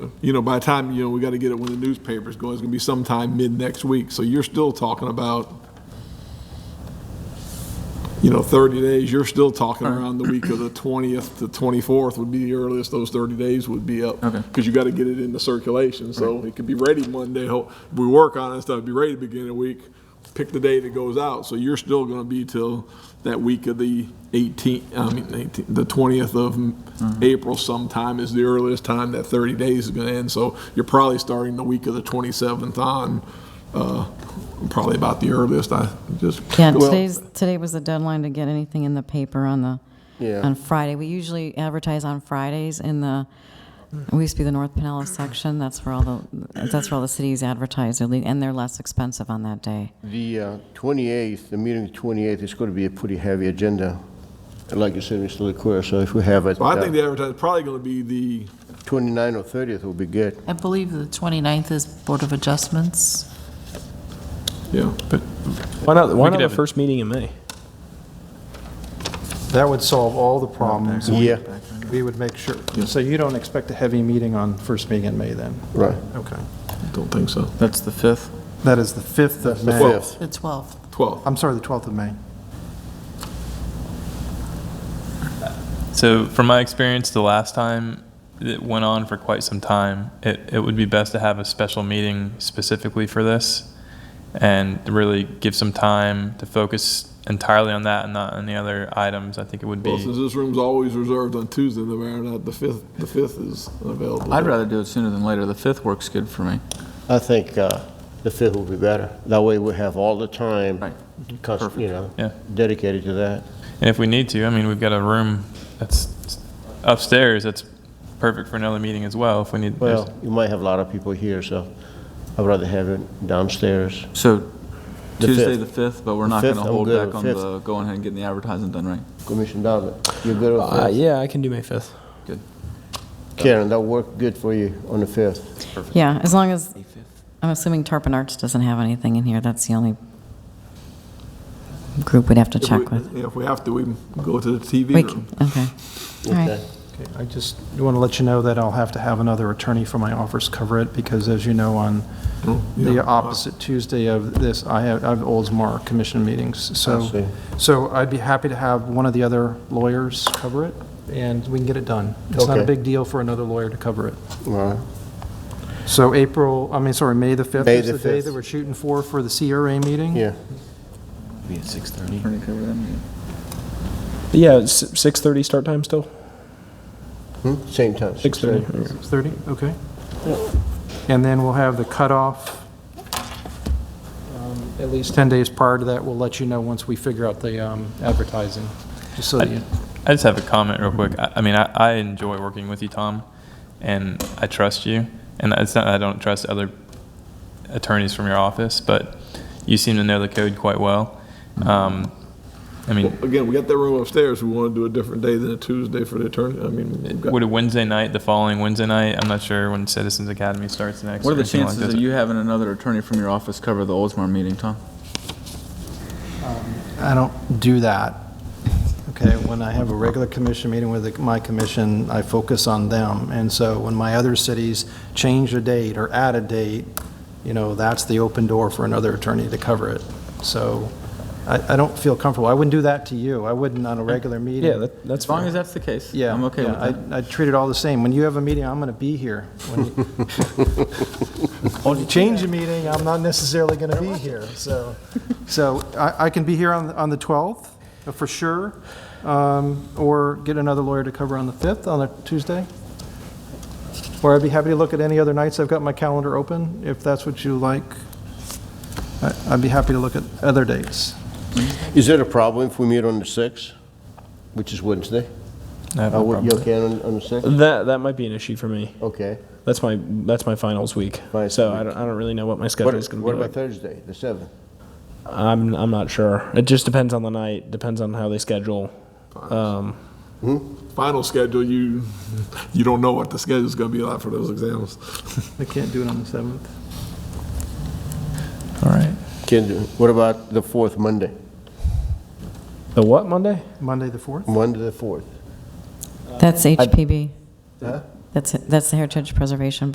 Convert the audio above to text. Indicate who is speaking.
Speaker 1: you know, by the time, you know, we got to get it when the newspaper's going, it's going to be sometime mid-next week. So you're still talking about, you know, 30 days, you're still talking around the week of the 20th to 24th would be the earliest those 30 days would be up.
Speaker 2: Okay.
Speaker 1: Because you got to get it into circulation, so it could be ready Monday. Ho- We work on it and stuff, be ready to begin a week, pick the day that goes out. So you're still going to be till that week of the 18th, I mean, 18th the 20th of April sometime is the earliest time that 30 days is going to end. So you're probably starting the week of the 27th on, uh, probably about the earliest, I just.
Speaker 3: Yeah,
Speaker 1: well,
Speaker 3: today's, today was the deadline to get anything in the paper on the, on Friday. We usually advertise on Fridays in the, we used to be the North Pinellas section, that's where all the, that's where all the cities advertise, their lea- and they're less expensive on that day.
Speaker 4: The uh, 28th, the meeting of the 28th is going to be a pretty heavy agenda. And Like you said, Mr. Leclerc, so if we have it,
Speaker 1: So I think
Speaker 4: uh,
Speaker 1: the advertising is probably going to be the,
Speaker 4: 29 or 30th will be good.
Speaker 5: I believe the 29th is Board of Adjustments.
Speaker 1: yeah, but
Speaker 6: Why not, why
Speaker 2: could
Speaker 6: not the
Speaker 2: have it-
Speaker 6: first meeting in May?
Speaker 7: That would solve all the problems.
Speaker 4: Yeah,
Speaker 7: We would make sure. So you don't expect a heavy meeting on first meeting in May then?
Speaker 4: right,
Speaker 7: Okay.
Speaker 1: don't think so.
Speaker 2: That's the 5th.
Speaker 7: That is the 5th of
Speaker 4: the
Speaker 7: May.
Speaker 4: 5th.
Speaker 5: The 12th.
Speaker 1: 12th.
Speaker 7: I'm sorry, the 12th of May.
Speaker 2: So from my experience, the last time it went on for quite some time, it, it would be best to have a special meeting specifically for this and really give some time to focus entirely on that and not on the other items. I think it would
Speaker 1: Well, since
Speaker 2: be,
Speaker 1: this room's always reserved on Tuesday, no matter not, the 5th, the 5th is available.
Speaker 2: I'd rather do it sooner than later. The 5th works good for me.
Speaker 4: I think uh, the 5th will be better. That way we have all the time,
Speaker 2: Right.
Speaker 4: cons- you know,
Speaker 2: Yeah.
Speaker 4: dedicated to that.
Speaker 2: And if we need to, I mean, we've got a room that's upstairs that's perfect for another meeting as well if we need. there's-
Speaker 4: Well, you might have a lot of people here, so I'd rather have it downstairs.
Speaker 8: So
Speaker 4: The
Speaker 8: Tuesday, the
Speaker 4: fifth.
Speaker 8: 5th, but we're not
Speaker 4: The
Speaker 8: going to
Speaker 4: 5th, I'm
Speaker 8: hold
Speaker 4: good
Speaker 8: back
Speaker 4: with
Speaker 8: on
Speaker 4: fifth.
Speaker 8: the, going ahead and getting the advertising done, right?
Speaker 4: Commissioner Donovan, you good with
Speaker 6: Uh,
Speaker 4: that?
Speaker 6: yeah, I can do May 5th.
Speaker 8: Good.
Speaker 4: Karen, that worked good for you on the 5th.
Speaker 3: Yeah, as long as, I'm assuming Tarpon Arts doesn't have anything in here, that's the only group we'd have to
Speaker 1: If we-
Speaker 3: check with.
Speaker 1: yeah, If we have to, we can go to the TV
Speaker 3: We
Speaker 1: room.
Speaker 3: c- Okay, all right.
Speaker 4: Okay.
Speaker 7: Okay, I just want to let you know that I'll have to have another attorney from my office cover it because as you know, on
Speaker 1: yeah.
Speaker 7: the opposite Tuesday of this, I have, I have Oldsmar Commission meetings.
Speaker 4: see.
Speaker 7: So, so I'd be happy to have one of the other lawyers cover it and we can get it done. It's not a
Speaker 4: Okay.
Speaker 7: big deal for another lawyer to cover it.
Speaker 4: All right.
Speaker 7: So April, I mean, sorry, May the 5th
Speaker 4: May
Speaker 7: is
Speaker 4: the
Speaker 7: the day
Speaker 4: 5th.
Speaker 7: that we're shooting for, for the CRA meeting?
Speaker 4: Yeah,
Speaker 8: Be at 6:30.
Speaker 6: But yeah, it's 6:30 start time still?
Speaker 4: Hmm? same time.
Speaker 6: 6:30.
Speaker 7: 6:30, okay. And then we'll have the cutoff, um, at least 10 days prior to that, we'll let you know once we figure out the um, advertising, just so that you,
Speaker 2: I just have a comment real quick. I, I mean, I, I enjoy working with you, Tom, and I trust you. And it's not that I don't trust other attorneys from your office, but you seem to know the code quite well. Um, I mean,
Speaker 1: Again, we got that room upstairs, we want to do a different day than a Tuesday for the attorney, I mean, we've got-
Speaker 2: would a Wednesday night, the following Wednesday night, I'm not sure when Citizens Academy starts next.
Speaker 8: What are
Speaker 2: or
Speaker 8: the
Speaker 2: anything like
Speaker 8: chances
Speaker 2: this.
Speaker 8: of you having another attorney from your office cover the Oldsmar meeting, Tom?
Speaker 7: I don't do that. Okay, when I have a regular commission meeting with the- my commission, I focus on them. And so when my other cities change a date or add a date, you know, that's the open door for another attorney to cover it. So I, I don't feel comfortable. I wouldn't do that to you. I wouldn't on a regular meeting.
Speaker 6: Yeah, that, that's
Speaker 8: As long
Speaker 6: fine.
Speaker 8: as that's the case,
Speaker 7: Yeah.
Speaker 8: I'm okay
Speaker 7: yeah,
Speaker 8: with that.
Speaker 7: I, I treat it all the same. When you have a meeting, I'm going to be here. When you- When you change a meeting, I'm not necessarily going to be here, so. So I, I can be here on, on the 12th, uh, for sure, um, or get another lawyer to cover on the 5th, on a Tuesday. Or I'd be happy to look at any other nights. I've got my calendar open, if that's what you like. I- I'd be happy to look at other dates.
Speaker 4: Is it a problem if we meet on the 6th, which is Wednesday?
Speaker 2: I have no
Speaker 4: Uh, what-
Speaker 2: problem
Speaker 4: You
Speaker 2: with it.
Speaker 4: okay on on the 6th?
Speaker 6: That, that might be an issue for me.
Speaker 4: Okay.
Speaker 6: That's my, that's my finals week.
Speaker 4: Finals
Speaker 6: So I
Speaker 4: week.
Speaker 6: don't, I don't really know what my
Speaker 4: What
Speaker 6: schedule's going to
Speaker 4: what
Speaker 6: be
Speaker 4: about
Speaker 6: like.
Speaker 4: Thursday, the 7th?
Speaker 6: I'm, I'm not sure. It just depends on the night, depends on how they schedule. Um,
Speaker 1: final schedule, you, you don't know what the schedule's going to be like for those exams.
Speaker 7: I can't do it on the 7th.
Speaker 2: All right.
Speaker 4: Can do. What about the 4th, Monday?
Speaker 6: The what, Monday?
Speaker 7: Monday, the 4th?
Speaker 4: Monday, the 4th?
Speaker 3: That's HPB.
Speaker 4: Huh?
Speaker 3: That's, that's the Heritage Preservation